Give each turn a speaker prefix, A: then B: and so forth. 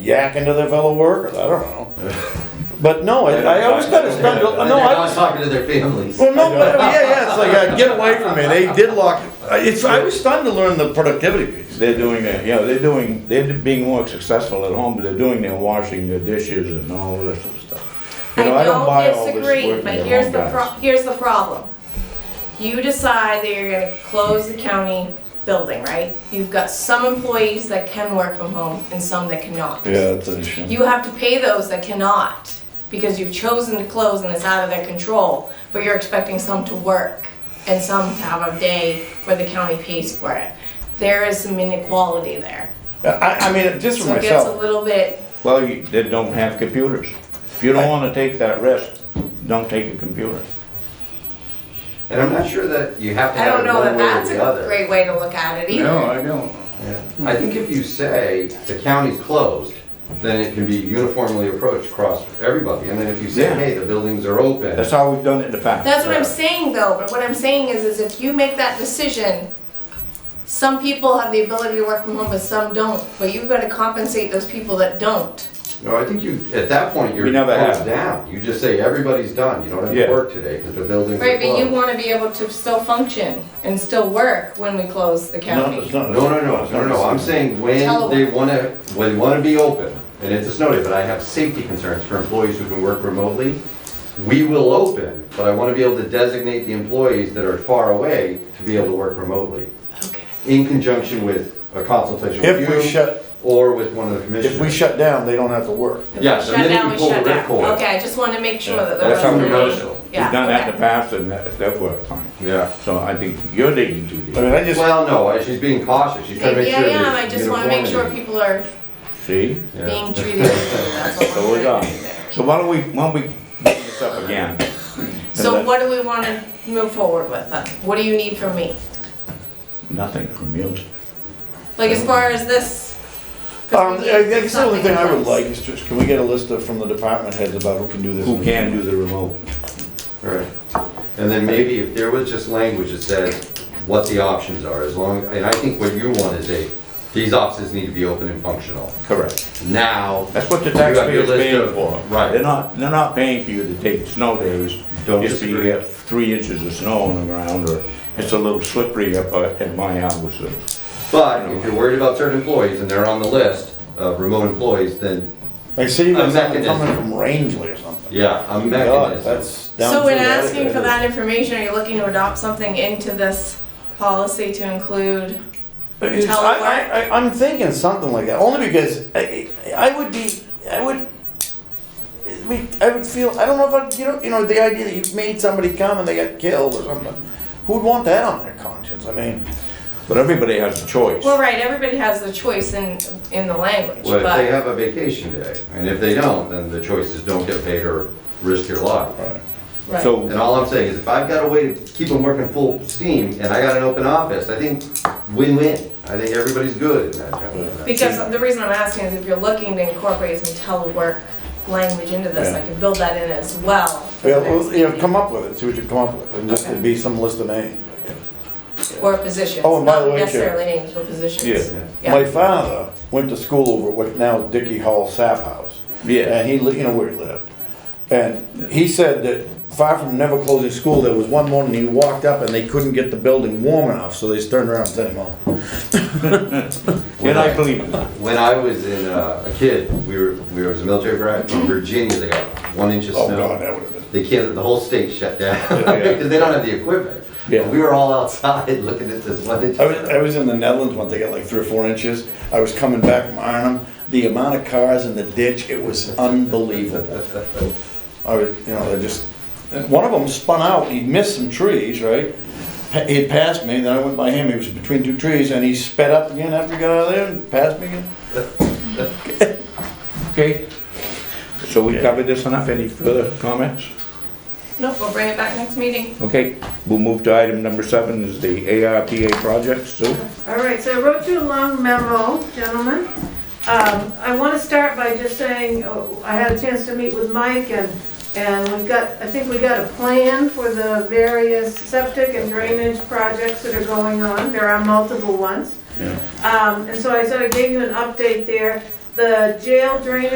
A: yakking to their fellow workers. I don't know. But no, I, I always got to spend. No,
B: They're
A: I
B: not
A: was.
B: talking to their families.
A: Well, no, but yeah, yeah. It's like uh, get away from me. They did lock. It's. I was stunned to learn the productivity piece.
C: They're doing that, you know, they're doing, they're being more successful at home, but they're doing their washing, their dishes and all of this sort of stuff. You know, I don't buy all this
D: disagree,
C: working
D: but
C: at
D: here's
C: home,
D: the pro,
C: guys.
D: here's the problem. You decide that you're gonna close the county building, right? You've got some employees that can work from home and some that cannot.
C: Yeah, that's an issue.
D: You have to pay those that cannot, because you've chosen to close and it's out of their control, but you're expecting some to work and some to have a day where the county pays for it. There is some inequality there.
A: I, I mean, just for
D: So it gets a
A: myself.
D: little bit,
C: Well, you, they don't have computers. If you don't wanna take that risk, don't take a computer.
B: And I'm not sure that you have to
D: I
B: have
D: don't
B: it
D: know that
B: one way or
D: that's
B: the
D: a
B: other.
D: great way to look at it either.
C: I don't.
B: Yeah. I think if you say the county's closed, then it can be uniformly approached across everybody. And then if you say,
C: Yeah.
B: hey, the buildings are open.
C: That's how we've done it in the past.
D: That's what I'm saying though, but what I'm saying is, is if you make that decision, some people have the ability to work from home, but some don't, but you've gotta compensate those people that don't.
B: No, I think you, at that point, you're
C: We never
B: closed
C: have.
B: down. You just say, everybody's done, you don't have to
C: Yeah.
B: work today because the buildings are
D: Right, but you
B: closed.
D: wanna be able to still function and still work when we close the
C: No, it's
D: county.
C: not.
B: No, no, no, no, no, I'm saying when they
D: Telework.
B: wanna, when they wanna be open, and it's a snow day, but I have safety concerns for employees who can work remotely. We will open, but I wanna be able to designate the employees that are far away to be able to work remotely
D: Okay.
B: in conjunction with a consultation
A: If
B: with
A: we
B: you
A: shut,
B: or with one of the commissioners.
A: if we shut down, they don't have to work.
D: If we
B: Yes, the
D: Shut
B: minute
D: down,
B: you
D: we
B: pull the
D: shut
B: rip
D: down.
B: cord.
D: Okay, I just wanna make sure that the.
B: That's how we
D: residents-
B: notice it.
C: We've
D: Yeah,
C: done that in
D: okay.
C: the past and that, that worked fine.
B: Yeah.
C: So I think you're digging too
A: I
C: deep.
A: mean, I just.
B: Well, no, I- she's being cautious, she's trying to
D: Yeah,
B: make sure there's
D: yeah, I just wanna make sure
B: uniformity.
D: people are
C: See?
B: Yeah.
D: being treated, that's what
C: So
D: we're
C: we're
D: trying
C: done.
D: to do there.
C: So why don't we, why don't we bring this up again?
D: So
C: that-
D: what do we wanna move forward with then? What do you need from me?
C: Nothing from you.
D: Like as far as this. 'cause
A: Um,
D: we
A: I I
D: need
A: guess the only
D: something
A: thing I would
D: else.
A: like is just, can we get a list of, from the department heads about who can do this?
C: Who can do the remote?
B: Right. And then maybe if there was just language that says what the options are, as long, and I think what you want is a, these offices need to be open and functional.
C: Correct.
B: Now,
C: That's what the
B: You got your
C: taxpayers
B: list
C: paying
B: of-
C: for.
B: right.
C: They're not, they're not paying for you to take snow days.
B: Don't
C: Just so you
B: disagree.
C: get three inches of snow on the ground or it's a little slippery up uh, at my house. or-
B: but if you're worried about certain employees and they're on the list of remote employees, then,
A: I see you guys
B: A
A: have them coming
B: mechanism.
A: from Rangeley or something.
B: yeah,
A: God,
B: I'm mechanism.
A: that's down
D: So in
A: through the-
D: asking for that information, are you looking to adopt something into this policy to include?
A: It's- I, I, I- I'm thinking something like that, only because I, I would be, I would, we, I would feel, I don't know if I, you know, you know, the idea that you made somebody come and they got killed or something, who would want that on their conscience? I mean,
C: But everybody has a choice.
D: Well, right, everybody has the choice in, in the language,
B: Well, if they
D: but,
B: have a vacation day, and if they don't, then the choice is don't get paid or risk your life.
D: right.
C: So
B: And all I'm saying is if I've got a way to keep them working full steam and I got an open office, I think win-win. I think everybody's good in that job.
D: Because the reason I'm asking is if you're looking to incorporate some telework language into this, I can build that in as well. for
A: yeah,
D: the
A: well,
D: next
A: you know,
D: meeting.
A: come up with it, see what you come up with, and just it'd be some list of names. I guess.
D: Or positions,
A: Oh, and by the
D: not
A: way, Chair.
D: necessarily names, but positions.
C: Yeah.
D: Yeah.
A: My father went to school over at what now is Dickey Hall Sap House.
C: Yeah.
A: And he, li- you know where he lived. And he said that far from never closing school, there was one morning he walked up and they couldn't get the building warm enough, so they just turned around and sent him home.
C: and I believe in that.
B: When I was in, uh, a kid, we were, we was a military brat from Virginia, they got one inch of
A: Oh, God,
B: snow.
A: that would have been.
B: They can't, the whole state shut down because they don't have the equipment.
A: Yeah.
B: We were all outside looking at this one inch.
A: I
B: of
A: was, I
B: snow.
A: was in the Netherlands once, they got like three or four inches. I was coming back from Arnhem, the amount of cars in the ditch, it was unbelievable. I was, you know, they just, one of them spun out, he missed some trees, right? Pa- He had passed me, then I went by him, he was between two trees, and he sped up again after he got out of there and passed me again.
C: Okay? So we covered this enough. Any further comments?
D: Nope, we'll bring it back next meeting.
C: Okay, we'll move to item number seven is the ARPA project. Sue?
E: All right, so I wrote you a long memo, gentlemen. Um, I want to start by just saying, oh, I had a chance to meet with Mike and, and we've got, I think we got a plan for the various septic and drainage projects that are going on. There are multiple ones. Um, and so I sort of gave you an update there. the jail drainage